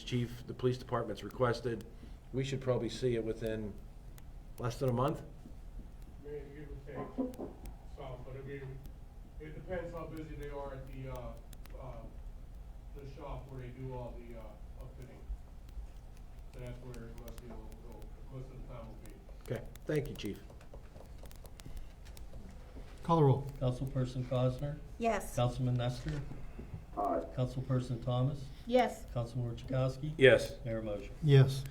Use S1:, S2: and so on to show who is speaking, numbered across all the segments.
S1: chief, the police department's requested. We should probably see it within less than a month.
S2: Maybe give or take some, but I mean, it depends how busy they are at the, uh, uh, the shop where they do all the, uh, upfitting. That's where most people will go, most of the time will be.
S1: Okay, thank you, chief.
S3: Call the roll.
S4: Councilperson Cosner,
S5: Yes.
S4: Councilman Nestor,
S6: aye,
S4: Councilperson Thomas,
S5: Yes.
S4: Councilman Orchowski.
S1: Yes.
S4: Mayor motion.
S3: Yes.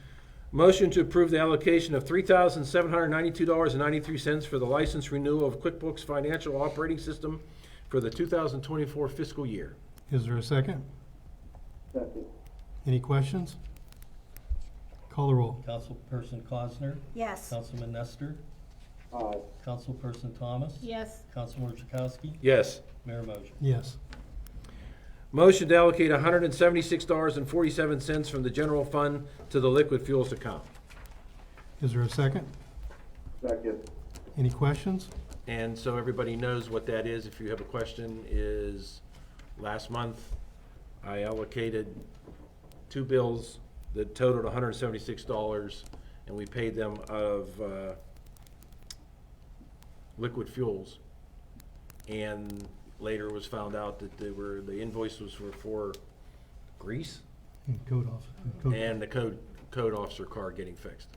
S1: Motion to approve the allocation of three thousand seven hundred ninety-two dollars and ninety-three cents for the license renewal of QuickBooks Financial Operating System for the two thousand twenty-four fiscal year.
S3: Is there a second?
S6: second,
S3: Any questions? Call the roll.
S4: Councilperson Cosner,
S5: Yes.
S4: Councilman Nestor,
S6: aye,
S4: Councilperson Thomas,
S5: Yes.
S4: Councilman Orchowski.
S1: Yes.
S4: Mayor motion.
S3: Yes.
S1: Motion to allocate hundred and seventy-six dollars and forty-seven cents from the general fund to the liquid fuels account.
S3: Is there a second?
S6: second,
S3: Any questions?
S1: And so everybody knows what that is. If you have a question, is last month I allocated two bills that totaled hundred and seventy-six dollars and we paid them of, uh, liquid fuels. And later was found out that they were, the invoice was for, for grease
S3: And Hmm, Code off. Code-
S1: and the code, code officer car getting fixed.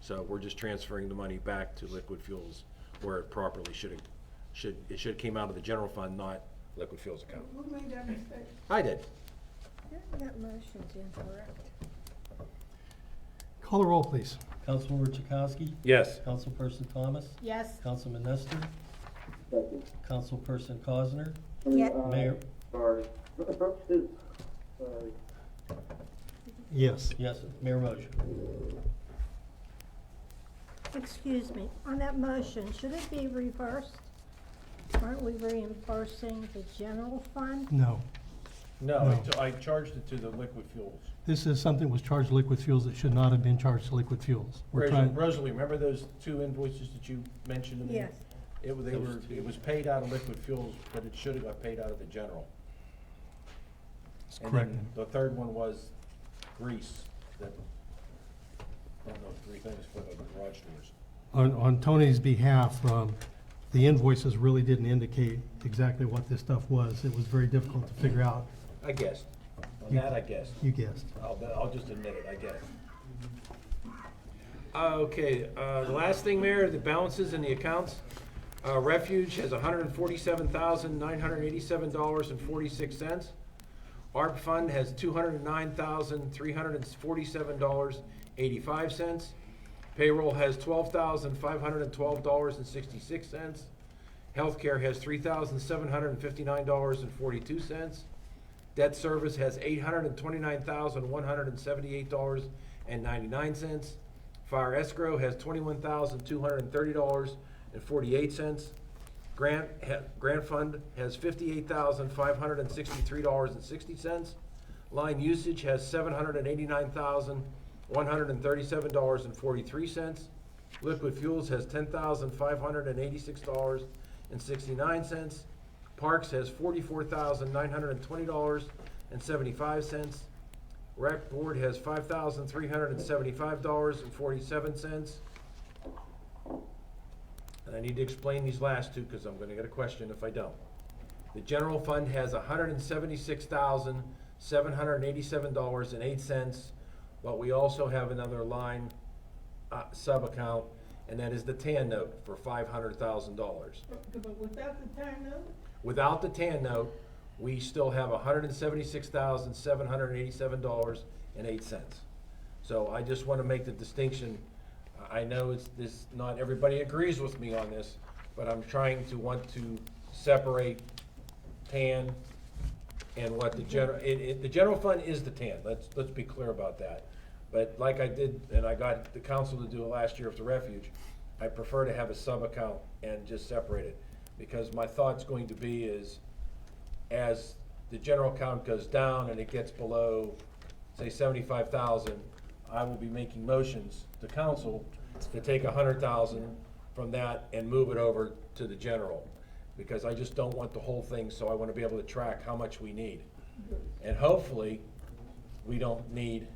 S1: So we're just transferring the money back to liquid fuels where it properly should have, should, it should have came out of the general fund, not liquid fuels account.
S7: Who made that mistake?
S1: I did.
S5: That motion's incorrect.
S3: Call the roll, please.
S4: Councilman Orchowski,
S1: Yes.
S4: Councilperson Thomas,
S5: Yes.
S4: Councilman Nestor,
S6: second.
S4: Councilperson Cosner,
S6: I mean,
S5: Yeah.
S6: aye,
S4: Mayor,
S6: Sorry. Sorry.
S3: Yes.
S4: yes, mayor motion.
S5: Excuse me, on that motion, should it be reversed? Aren't we reimbursing the general fund?
S3: No.
S1: No,
S3: I
S1: I,
S3: No.
S1: I charged it to the liquid fuels.
S3: This is something that was charged to liquid fuels that should not have been charged to liquid fuels. We're trying,
S1: Rosalie, remember those two invoices that you mentioned to me?
S5: Yes.
S1: It, wa- they were, it was paid out of liquid fuels, but it should have got paid out of the general.
S3: it's
S1: And
S3: correct.
S1: then The third one was grease, that, I don't know, three things for the garage doors.
S3: On, on Tony's behalf, um, the invoices really didn't indicate exactly what this stuff was. It was very difficult to figure out.
S1: I guessed. On
S3: You-
S1: that, I guessed.
S3: You guessed.
S1: I'll, I'll just admit it, I guess. Okay, uh, the last thing, Mayor, the balances in the accounts. Uh, Refuge has hundred and forty-seven thousand, nine hundred and eighty-seven dollars and forty-six cents. ARP Fund has two hundred and nine thousand, three hundred and forty-seven dollars, eighty-five cents. Payroll has twelve thousand, five hundred and twelve dollars and sixty-six cents. Healthcare has three thousand, seven hundred and fifty-nine dollars and forty-two cents. Debt service has eight hundred and twenty-nine thousand, one hundred and seventy-eight dollars and ninety-nine cents. Fire escrow has twenty-one thousand, two hundred and thirty dollars and forty-eight cents. Grant, ha- grant fund has fifty-eight thousand, five hundred and sixty-three dollars and sixty cents. Line usage has seven hundred and eighty-nine thousand, one hundred and thirty-seven dollars and forty-three cents. Liquid fuels has ten thousand, five hundred and eighty-six dollars and sixty-nine cents. Parks has forty-four thousand nine hundred and twenty dollars and seventy-five cents. Rec Board has five thousand three hundred and seventy-five dollars and forty-seven cents. And I need to explain these last two, cause I'm gonna get a question if I don't. The general fund has hundred and seventy-six thousand seven hundred and eighty-seven dollars and eight cents, but we also have another line, uh, sub-account, and that is the TAN note for five hundred thousand dollars.
S7: But- But without the time note,
S1: Without the TAN note, we still have hundred and seventy-six thousand, seven hundred and eighty-seven dollars and eight cents. So I just wanna make the distinction, I I know it's, this, not everybody agrees with me on this, but I'm trying to want to separate TAN and what the general, it, it, the general fund is the TAN, let's, let's be clear about that. But like I did, and I got the council to do it last year with the refuge, I prefer to have a sub-account and just separate it. Because my thought's going to be is, as the general account goes down and it gets below, say seventy-five thousand, I will be making motions to council to take a hundred thousand from that and move it over to the general. Because I just don't want the whole thing, so I wanna be able to track how much we need. And hopefully, we don't need